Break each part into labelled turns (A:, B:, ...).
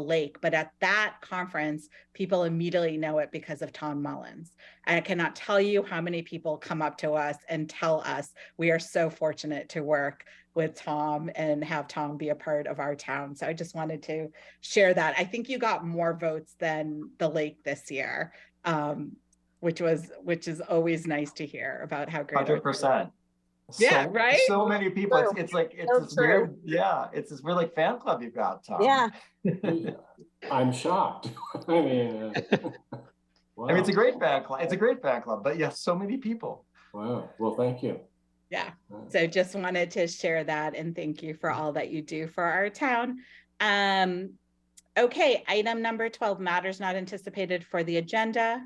A: lake. But at that conference, people immediately know it because of Tom Mullins. And I cannot tell you how many people come up to us and tell us we are so fortunate to work with Tom and have Tom be a part of our town. So I just wanted to share that. I think you got more votes than the lake this year, um, which was which is always nice to hear about how great. our-
B: Hundred percent.
A: Yeah, right?
B: So many people, it's, it's like, it's
C: So
B: this weird, yeah, it's this weird like fan club you've got, Tom.
C: Yeah,
D: I'm shocked. I mean, uh, wow.
B: I mean, it's a great fan club, it's a great fan club, but yes, so many people.
D: wow. Well, thank you.
A: Yeah.
D: Uh,
A: So just wanted to share that and thank you for all that you do for our town. Um, okay, item number twelve, matters not anticipated for the agenda.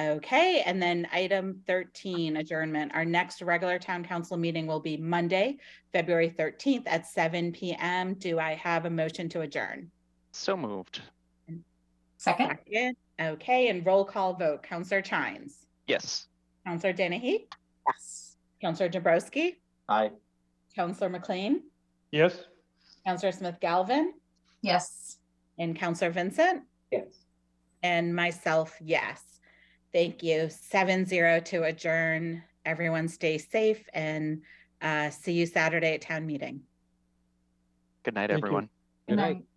A: Okay, and then item thirteen, adjournment. Our next regular town council meeting will be Monday, February thirteenth at seven PM. Do I have a motion to adjourn?
E: So moved.
F: Second?
A: Second. Okay, and roll call vote. Counselor Chines,
E: Yes.
A: Counselor Dennehy,
C: yes.
A: Counselor Dabrowski,
B: I,
A: Counselor McLean,
G: Yes.
A: Counselor Smith Galvin,
F: Yes.
A: and Counselor Vincent,
G: Yes.
A: and myself, yes. Thank you. Seven zero to adjourn. Everyone stay safe and uh, see you Saturday at town meeting.
E: Good night,
G: Thank you.
E: everyone.
F: And
D: Good
F: then